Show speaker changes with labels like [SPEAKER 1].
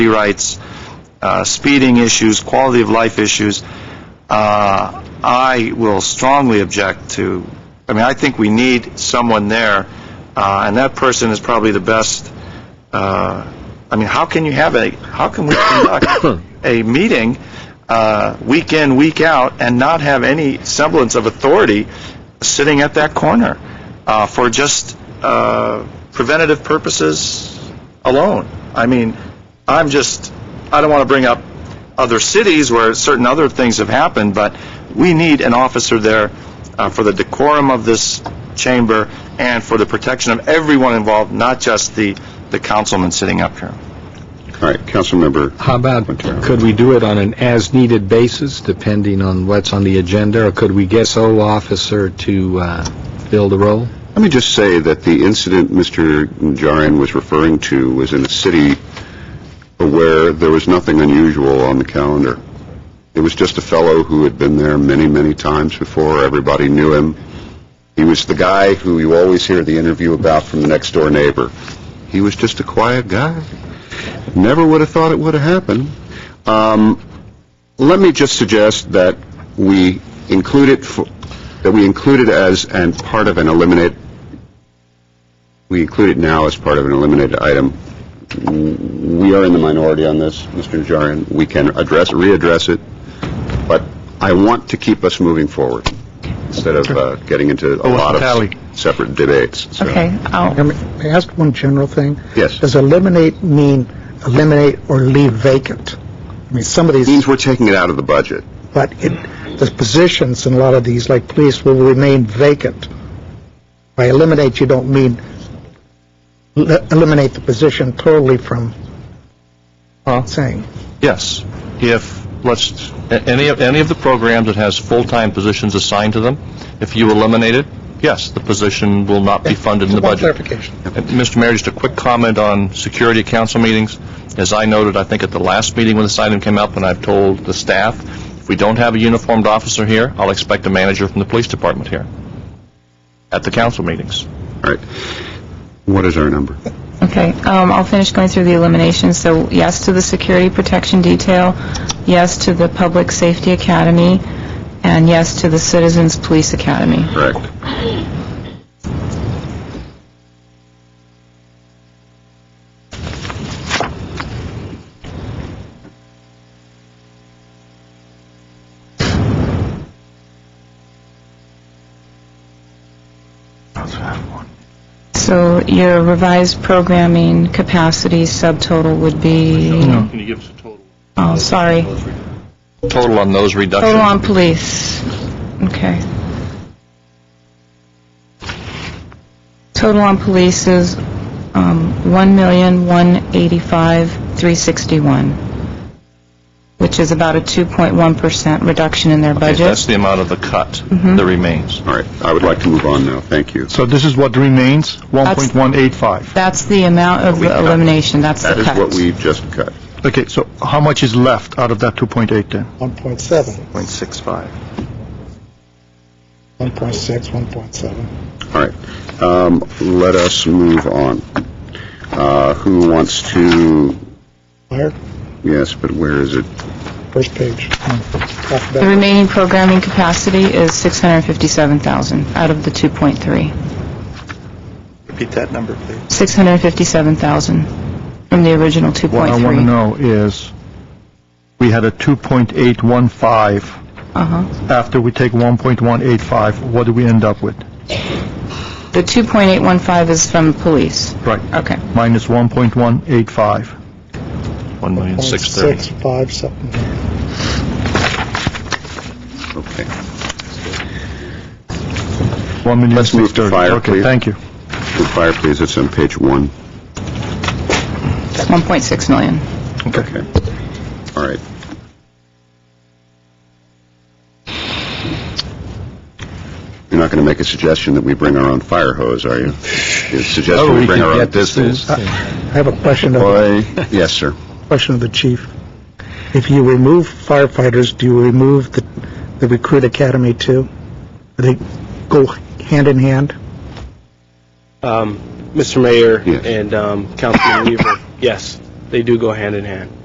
[SPEAKER 1] rights, uh, speeding issues, quality of life issues, uh, I will strongly object to, I mean, I think we need someone there, uh, and that person is probably the best, uh, I mean, how can you have a, how can we conduct a meeting uh, week in, week out, and not have any semblance of authority sitting at that corner uh, for just uh, preventative purposes alone? I mean, I'm just, I don't want to bring up other cities where certain other things have happened, but we need an officer there uh, for the decorum of this chamber and for the protection of everyone involved, not just the, the councilman sitting up here.
[SPEAKER 2] All right, Councilmember,
[SPEAKER 3] How about, could we do it on an as-needed basis, depending on what's on the agenda, or could we get sole officer to uh, fill the role?
[SPEAKER 2] let me just say that the incident Mr. Najarian was referring to was in a city where there was nothing unusual on the calendar. It was just a fellow who had been there many, many times before. Everybody knew him. He was the guy who you always hear the interview about from the next door neighbor. He was just a quiet guy. Never would have thought it would have happened. Um, let me just suggest that we include it for, that we include it as and part of an eliminate. We include it now as part of an eliminated item. We are in the minority on this, Mr. Najarian. We can address, readdress it, but I want to keep us moving forward instead of uh, getting into a lot of
[SPEAKER 4] tally.
[SPEAKER 2] s- separate debates. So-
[SPEAKER 5] Okay, I'll,
[SPEAKER 4] May I ask one general thing?
[SPEAKER 2] Yes.
[SPEAKER 4] Does eliminate mean eliminate or leave vacant? I mean, some of
[SPEAKER 2] It
[SPEAKER 4] these,
[SPEAKER 2] means we're taking it out of the budget.
[SPEAKER 4] but it, the positions in a lot of these, like police, will remain vacant. By eliminate, you don't mean le- eliminate the position totally from saying.
[SPEAKER 6] Yes. If, let's, a- any, of any of the programs that has full-time positions assigned to them, if you eliminate it, yes, the position will not be funded in the
[SPEAKER 4] One
[SPEAKER 6] budget.
[SPEAKER 4] clarification.
[SPEAKER 6] And, Mr. Mayor, just a quick comment on security at council meetings. As I noted, I think at the last meeting when this item came up, and I've told the staff, if we don't have a uniformed officer here, I'll expect a manager from the police department here at the council meetings.
[SPEAKER 2] All right. What is our number?
[SPEAKER 5] okay, um, I'll finish going through the eliminations. So yes to the security protection detail, yes to the public safety academy, and yes to the citizens police academy.
[SPEAKER 2] Correct.
[SPEAKER 5] So your revised programming capacity subtotal would be,
[SPEAKER 6] Can you give us a total?
[SPEAKER 5] oh, sorry,
[SPEAKER 6] Total on those reductions?
[SPEAKER 5] total on police. Okay. Total on police is, um, $1,185,361, which is about a 2.1% reduction in their
[SPEAKER 6] Okay, That's
[SPEAKER 5] budget. Mm-hmm.
[SPEAKER 6] the amount of the cut that remains.
[SPEAKER 2] All right. I would like to move on now. Thank you.
[SPEAKER 4] So this is what remains,
[SPEAKER 5] 1.185. That's the amount of
[SPEAKER 2] We
[SPEAKER 5] the
[SPEAKER 2] cut.
[SPEAKER 5] elimination, that's the
[SPEAKER 2] That
[SPEAKER 5] cut.
[SPEAKER 2] is what we just cut.
[SPEAKER 4] Okay, so how much is left out of that 2.8 then? 1.7,
[SPEAKER 1] 0.65.
[SPEAKER 4] 1.6, 1.7.
[SPEAKER 2] All right. Um, Let us move on. Uh, Who wants to,
[SPEAKER 4] Fire,
[SPEAKER 2] yes, but where is it?
[SPEAKER 4] first page.
[SPEAKER 5] The remaining programming capacity is 657,000 out of the 2.3.
[SPEAKER 1] Repeat that number, please.
[SPEAKER 5] 657,000 from the original
[SPEAKER 7] What I want to
[SPEAKER 5] 2.3.
[SPEAKER 7] know is, we had a 2.815.
[SPEAKER 5] Uh-huh.
[SPEAKER 7] After we take 1.185, what do we end up with?
[SPEAKER 5] The 2.815 is from police.
[SPEAKER 7] Right.
[SPEAKER 5] Okay.
[SPEAKER 7] Minus 1.185.
[SPEAKER 6] 1,630,000.
[SPEAKER 4] something.
[SPEAKER 2] Okay.
[SPEAKER 7] 1,630,000.
[SPEAKER 2] Let's move to fire,
[SPEAKER 7] Okay,
[SPEAKER 2] please.
[SPEAKER 7] thank you.
[SPEAKER 2] Good Fire, please, it's on page one.
[SPEAKER 5] It's 1.6 million.
[SPEAKER 2] Okay. All right. You're not going to make a suggestion that we bring our own fire hose, are you? You're suggesting Oh, we bring our own pistols?
[SPEAKER 4] I have a question of,
[SPEAKER 2] Boy, yes, sir.
[SPEAKER 4] question of the chief. If you remove firefighters, do you remove the, the recruit academy too? Do they go hand in hand?
[SPEAKER 8] Um, Mr. Mayor
[SPEAKER 2] Yes.
[SPEAKER 8] and um, Councilman Weaver, yes. they do go hand in hand.